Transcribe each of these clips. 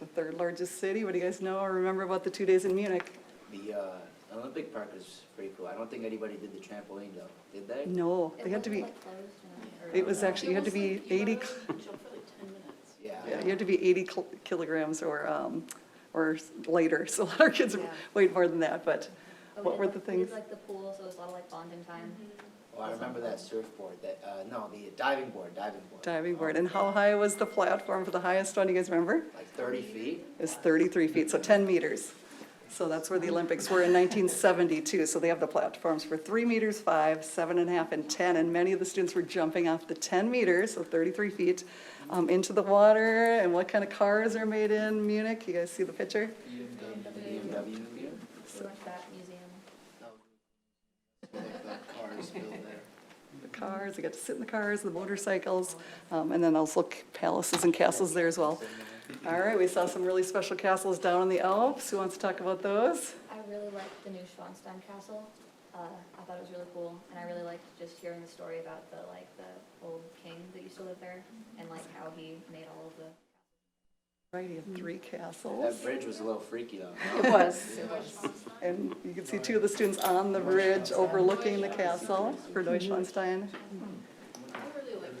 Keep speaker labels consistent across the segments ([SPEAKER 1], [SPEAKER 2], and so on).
[SPEAKER 1] the third largest city. What do you guys know or remember about the two days in Munich?
[SPEAKER 2] The uh, Olympic Park is pretty cool. I don't think anybody did the trampoline though, did they?
[SPEAKER 1] No, they had to be, it was actually, you had to be 80,
[SPEAKER 2] Yeah.
[SPEAKER 1] yeah, you had to be 80 kil- kilograms or, um, or lighter. So a lot of kids
[SPEAKER 3] Yeah.
[SPEAKER 1] weighed more than that, but
[SPEAKER 4] Oh,
[SPEAKER 1] what were the things?
[SPEAKER 4] like the pool, so it was a lot of like bonding time.
[SPEAKER 2] Well, Oh, I remember that surfboard, that, uh, no, the diving board, diving board. Oh,
[SPEAKER 1] Diving board. And how high was the platform for the highest one? Do you guys remember?
[SPEAKER 2] Like thirty feet?
[SPEAKER 1] is 33 feet, so 10 meters. So that's where the Olympics were in 1972. So they have the platforms for three meters, five, seven and a half, and 10. And many of the students were jumping off the 10 meters, so 33 feet, um, into the water. And what kind of cars are made in Munich? You guys see the picture?
[SPEAKER 2] BMW.
[SPEAKER 4] So much that museum.
[SPEAKER 2] Like the cars built there.
[SPEAKER 1] The cars, they got to sit in the cars, the motorcycles, um, and then also c- palaces and castles there as well. All right, we saw some really special castles down in the Alps. Who wants to talk about those?
[SPEAKER 4] I really liked the new Schwanstein Castle. Uh, I thought it was really cool, and I really liked just hearing the story about the like the old king that used to live there, and like how he made all of the.
[SPEAKER 1] Right, you have three castles.
[SPEAKER 2] That bridge was a little freaky though.
[SPEAKER 1] It was. And you can see two of the students on the bridge overlooking the castle for Neuschwanstein.
[SPEAKER 5] I really liked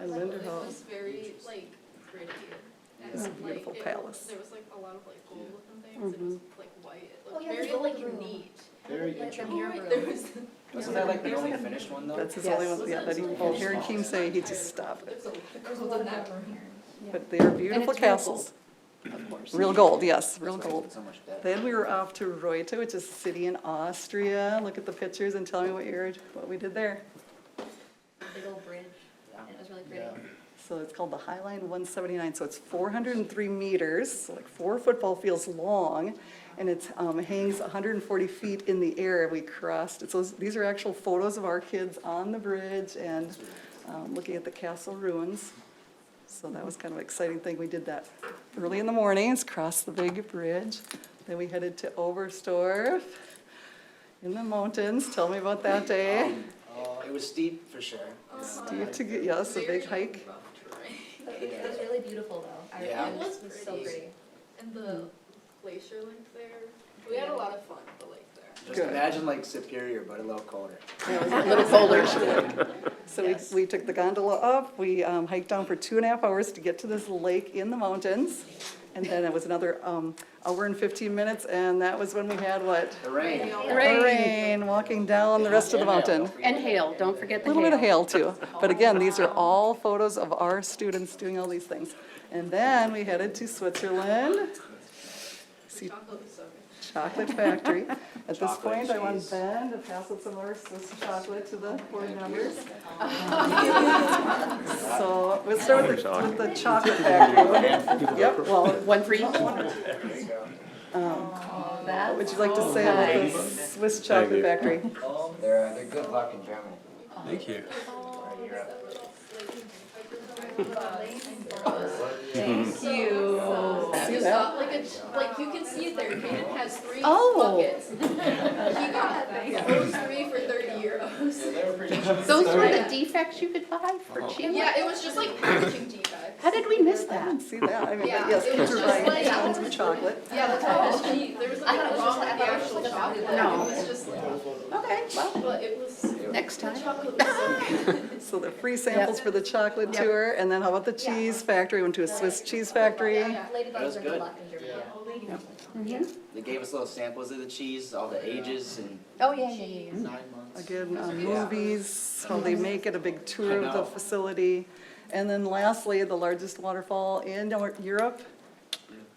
[SPEAKER 5] Linderhof.
[SPEAKER 1] And Linderhof.
[SPEAKER 5] It was very, like, pretty. and,
[SPEAKER 1] It's a
[SPEAKER 5] like,
[SPEAKER 1] beautiful
[SPEAKER 5] it was-
[SPEAKER 1] palace.
[SPEAKER 5] There was like a lot of like gold and things,
[SPEAKER 1] Mm-hmm.
[SPEAKER 5] it was like white, it
[SPEAKER 4] Oh,
[SPEAKER 5] looked
[SPEAKER 4] yeah, there's
[SPEAKER 5] very
[SPEAKER 4] a lake
[SPEAKER 5] like
[SPEAKER 4] room.
[SPEAKER 5] neat.
[SPEAKER 2] Very
[SPEAKER 4] Like the
[SPEAKER 2] interesting.
[SPEAKER 4] mirror
[SPEAKER 5] Right,
[SPEAKER 4] room.
[SPEAKER 5] There was.
[SPEAKER 2] Wasn't that like the only finished one though?
[SPEAKER 1] That's his only
[SPEAKER 5] Yes.
[SPEAKER 1] one, yeah, that he, well, Harry Keem say he just stopped it.
[SPEAKER 5] There's a-
[SPEAKER 4] There's a lot of that room here.
[SPEAKER 1] But they are beautiful
[SPEAKER 3] it's real
[SPEAKER 1] castles.
[SPEAKER 3] of course.
[SPEAKER 1] Real gold, yes, real
[SPEAKER 2] That's why I spent
[SPEAKER 1] gold.
[SPEAKER 2] So much of that.
[SPEAKER 1] Then we were off to Reutte, which is a city in Austria. Look at the pictures and tell me what you're, what we did there.
[SPEAKER 4] Big old bridge, and it was really pretty.
[SPEAKER 1] So it's called the High Line 179, so it's 403 meters, so like four football fields long, and it hangs 140 feet in the air. We crossed, it's those- these are actual photos of our kids on the bridge and um, looking at the castle ruins. So that was kind of an exciting thing. We did that early in the mornings, crossed the big bridge. Then we headed to Oberstdorf in the mountains. Tell me about that day.
[SPEAKER 2] Oh, It was steep for sure. Uh-huh.
[SPEAKER 1] Steep to get, yes, a
[SPEAKER 5] very
[SPEAKER 1] big hike.
[SPEAKER 5] rough terrain.
[SPEAKER 4] But It was really beautiful though. I
[SPEAKER 2] Yeah.
[SPEAKER 4] remember
[SPEAKER 5] It was
[SPEAKER 4] It was so
[SPEAKER 5] pretty.
[SPEAKER 4] pretty.
[SPEAKER 5] And the
[SPEAKER 1] Hmm.
[SPEAKER 5] glacier link there, we had a lot of fun at the lake there.
[SPEAKER 2] Just
[SPEAKER 1] Good.
[SPEAKER 2] imagine like Superior, but a little colder.
[SPEAKER 1] So we, we took the gondola up, we um, hiked down for two and a half hours to get to this lake in the mountains. And then it was another um, hour and 15 minutes, and that was when we had what?
[SPEAKER 2] The rain.
[SPEAKER 3] Rain.
[SPEAKER 1] Rain, walking down the rest of the mountain.
[SPEAKER 3] And hail, don't forget
[SPEAKER 1] A
[SPEAKER 3] the
[SPEAKER 1] little bit of
[SPEAKER 3] hail.
[SPEAKER 1] hail too. But again, these are all photos of our students doing all these things. And then we headed to Switzerland,
[SPEAKER 5] The chocolate was so good.
[SPEAKER 1] chocolate factory. At this
[SPEAKER 2] Chocolate
[SPEAKER 1] point, I want
[SPEAKER 2] cheese.
[SPEAKER 1] Ben to pass out some more Swiss chocolate to the board members. So let's start with the- with the chocolate factory. Yep, well,
[SPEAKER 3] One for each?
[SPEAKER 1] what would you like
[SPEAKER 5] Oh,
[SPEAKER 1] to say about the Swiss chocolate factory?
[SPEAKER 2] They're, uh, they're good luck in Germany.
[SPEAKER 6] Thank you.
[SPEAKER 5] So
[SPEAKER 1] See
[SPEAKER 5] it's
[SPEAKER 1] that?
[SPEAKER 5] not like a, ch- like you can see it there, Kaden has three
[SPEAKER 3] Oh.
[SPEAKER 5] buckets. He got those three for thirty euros.
[SPEAKER 3] Those were the defects you could buy for cheap?
[SPEAKER 5] Yeah, it was just like packaging defects.
[SPEAKER 3] How did we miss
[SPEAKER 1] I
[SPEAKER 3] that?
[SPEAKER 1] didn't see that. I mean,
[SPEAKER 5] Yeah,
[SPEAKER 1] but yes,
[SPEAKER 5] it
[SPEAKER 1] kids
[SPEAKER 5] was
[SPEAKER 1] are
[SPEAKER 5] just
[SPEAKER 1] buying
[SPEAKER 5] like-
[SPEAKER 1] tons of chocolate.
[SPEAKER 5] Yeah, that's why it was cheap. There was nothing wrong with the actual chocolate.
[SPEAKER 3] No.
[SPEAKER 5] It was just like,
[SPEAKER 3] Okay, well,
[SPEAKER 5] but it was, the
[SPEAKER 3] next time.
[SPEAKER 5] chocolate was so good.
[SPEAKER 1] So the free samples for the chocolate
[SPEAKER 3] Yep.
[SPEAKER 1] tour, and then how about the cheese factory? Went to a Swiss cheese factory.
[SPEAKER 2] That was
[SPEAKER 4] Ladybugs are
[SPEAKER 2] good.
[SPEAKER 4] good luck in Germany.
[SPEAKER 3] Mm-hmm.
[SPEAKER 2] They gave us little samples of the cheese, all the ages and.
[SPEAKER 3] Oh, yeah, yeah, yeah, yeah.
[SPEAKER 1] Again, uh, movies, how they make it, a big tour of the facility. And then lastly, the largest waterfall in Nor- Europe.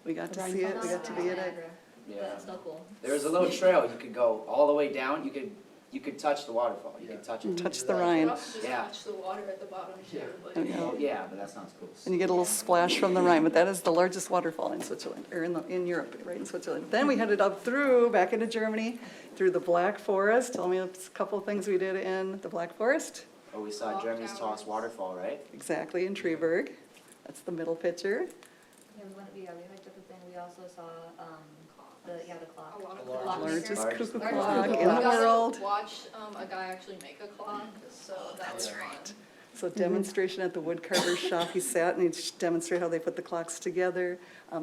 [SPEAKER 1] We got to see it, we got to be in it.
[SPEAKER 2] Yeah.
[SPEAKER 4] But it's still cool.
[SPEAKER 2] There was a little trail, you could go all the way down, you could, you could touch the waterfall, you could touch it.
[SPEAKER 1] Touch the
[SPEAKER 5] You
[SPEAKER 1] Rhine.
[SPEAKER 5] also just
[SPEAKER 2] Yeah.
[SPEAKER 5] touch the water at the bottom too,
[SPEAKER 1] Oh,
[SPEAKER 5] but
[SPEAKER 1] yeah.
[SPEAKER 2] Oh, yeah, but that sounds cool.
[SPEAKER 1] And you get a little splash from the Rhine, but that is the largest waterfall in Switzerland, or in, the- in Europe, right in Switzerland. Then we headed up through, back into Germany, through the Black Forest. Tell me a couple of things we did in the Black Forest.
[SPEAKER 2] Oh, we saw
[SPEAKER 5] Clock
[SPEAKER 2] Germany's tallest
[SPEAKER 5] towers.
[SPEAKER 2] waterfall, right?
[SPEAKER 1] Exactly, in Treberg. That's the middle picture.
[SPEAKER 4] Yeah, we went, yeah, we hiked up the thing, we also saw, um, the, yeah, the clock.
[SPEAKER 5] a lot of.
[SPEAKER 4] Clock maker.
[SPEAKER 1] Largest cuckoo
[SPEAKER 2] Largest
[SPEAKER 1] clock
[SPEAKER 5] We
[SPEAKER 1] in the
[SPEAKER 5] got to
[SPEAKER 1] world.
[SPEAKER 5] Watch, um, a guy actually make a clock, so that was fun.
[SPEAKER 1] So demonstration at the woodcarver's shop. He sat and he demonstrated how they put the clocks together. Um,